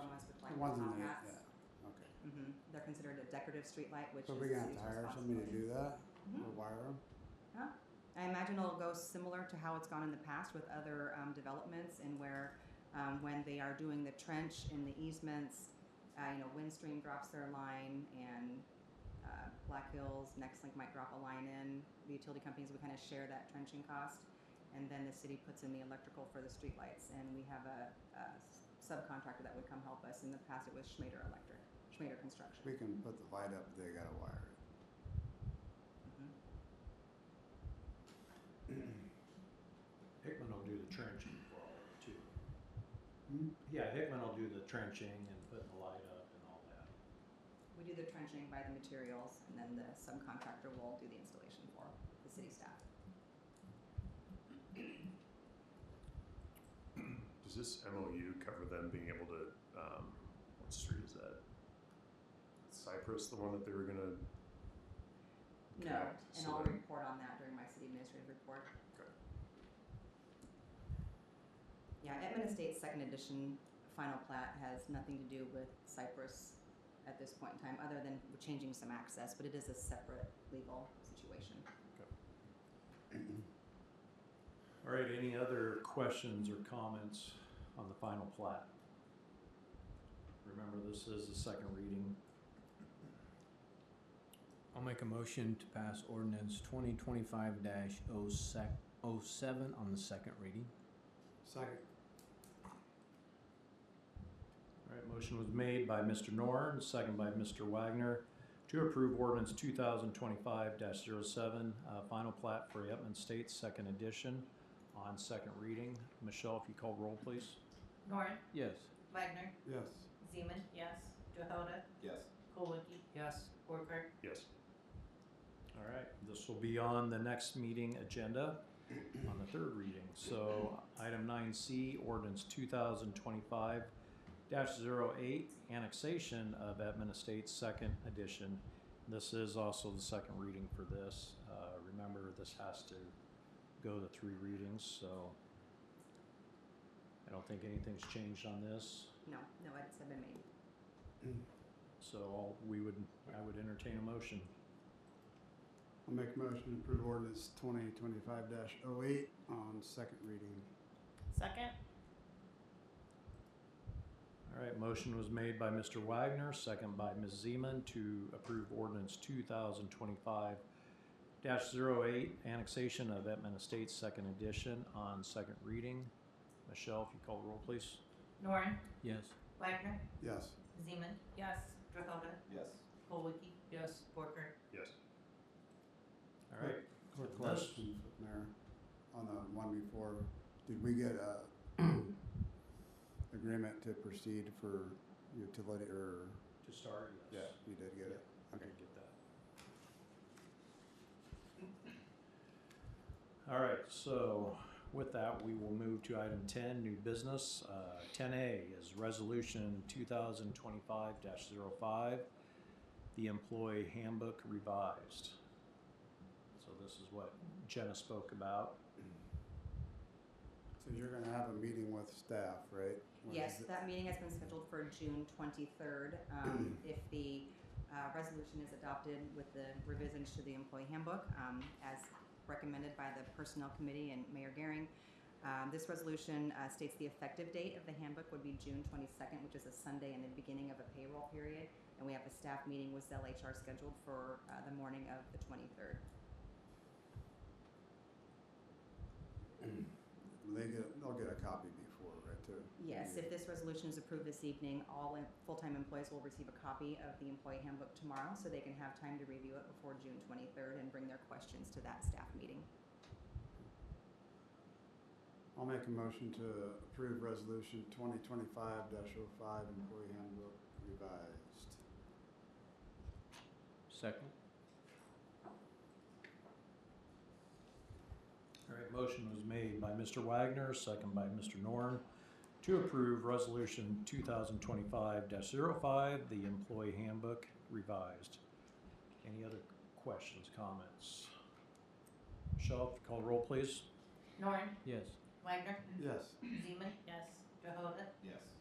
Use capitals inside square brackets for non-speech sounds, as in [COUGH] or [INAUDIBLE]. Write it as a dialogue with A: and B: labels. A: The
B: that
A: ones in
B: on
A: the,
B: that.
A: yeah, okay.
B: hmm They're considered a decorative streetlight, which
A: So
B: is
A: we're
B: the
A: gonna have to
B: city's
A: hire somebody to
B: responsibility.
A: do that,
B: Mhm.
A: or wire them?
B: Yeah. I imagine it'll go similar to how it's gone in the past with other um, developments and where um, when they are doing the trench in the easements, uh, you know, Windstream drops their line and uh, Black Hills, Nextlink might drop a line in. The utility companies, we kind of share that trenching cost. And then the city puts in the electrical for the streetlights. And we have a, a s- subcontractor that would come help us. In the past, it was Schmader Electric, Schmader Construction.
A: We can put the light up, they gotta wire it.
C: Hickman will do the trenching for all of it too.
A: Hmm?
C: Yeah, Hickman will do the trenching and putting the light up and all that.
B: We do the trenching by the materials, and then the subcontractor will do the installation for the city staff.
D: Does this MOU cover them being able to, um, what street is that? Cypress, the one that they were gonna,
B: No,
D: Correct.
B: and
D: So
B: I'll
D: then-
B: report on that during my city administrative report.
D: Okay.
B: Yeah, Edmund Estates Second Edition Final Plat has nothing to do with Cypress at this point in time, other than we're changing some access, but it is a separate legal situation.
C: All right, any other questions or comments on the final plat? Remember, this is the second reading.
E: I'll make a motion to pass ordinance twenty twenty-five dash oh sec, oh seven on the second reading.
A: Second,
C: All right, motion was made by Mr. Norn, second by Mr. Wagner, to approve ordinance two thousand twenty-five 7 uh, final plat for Yetman Estates, second edition, on second reading. Michelle, if you call roll, please.
F: Norn,
E: Yes.
F: Wagner,
A: yes,
F: Zeman, yes. Johoda,
G: Yes.
F: Colwicky,
E: Yes.
F: Porker,
D: yes,
C: All right, this will be on the next meeting agenda on the third reading. So item nine C, ordinance two thousand twenty-five 8 annexation of Edmund Estates Second Edition. This is also the second reading for this. Uh, remember, this has to go to three readings, so I don't think anything's changed on this.
B: No, no edits have been made.
C: So all, we would, I would entertain a motion.
A: I'll make a motion to approve ordinance twenty twenty-five dash oh eight on second reading.
F: second.
C: All right, motion was made by Mr. Wagner, second by Ms. Zeman to approve ordinance two thousand twenty-five 8 annexation of Etman Estates, second edition on second reading. Michelle, if you call the roll, please.
F: Norn,
E: Yes.
F: Wagner,
A: Yes,
F: Zeman, yes. Johoda,
G: Yes.
F: Colwicky,
E: Yes.
F: Porker,
D: yes.
C: All right,
A: quick
C: Yes.
A: question, Mayor, on the one before, did we get a agreement to proceed for utility or,
C: to start,
A: yeah, you did get it? Okay.
C: did get that. All right, so with that, we will move to item ten, new business. Uh, ten A is resolution two thousand twenty-five 5 the employee handbook revised. So this is what Jenna spoke about.
A: So you're gonna have a meeting with staff, right? When is
B: Yes,
A: it?
B: that meeting has been scheduled for June twenty-third.
A: [CLEARS THROAT]
B: Um, if the, uh, resolution is adopted with the revisions to the employee handbook, um, as recommended by the Personnel Committee and Mayor Garing, um, this resolution, uh, states the effective date of the handbook would be June twenty-second, which is a Sunday and the beginning of a payroll period. And we have a staff meeting with Zell HR scheduled for, uh, the morning of the twenty-third.
A: They get, they'll get a copy before, right, too?
B: Yes, if this resolution is approved this evening, all em- full-time employees will receive a copy of the employee handbook tomorrow, so they can have time to review it before June twenty-third and bring their questions to that staff meeting.
A: I'll make a motion to approve resolution twenty twenty-five dash oh five employee handbook revised.
E: Second?
C: All right, motion was made by Mr. Wagner, second by Mr. Norn, to approve Resolution two thousand twenty-five 5 the Employee Handbook Revised. Any other questions, comments? Michelle, if you call the roll, please.
F: Norn,
E: Yes.
F: [CLEARS THROAT] Wagner,
A: Yes.
F: Zeman, yes. Johoda,
G: Yes.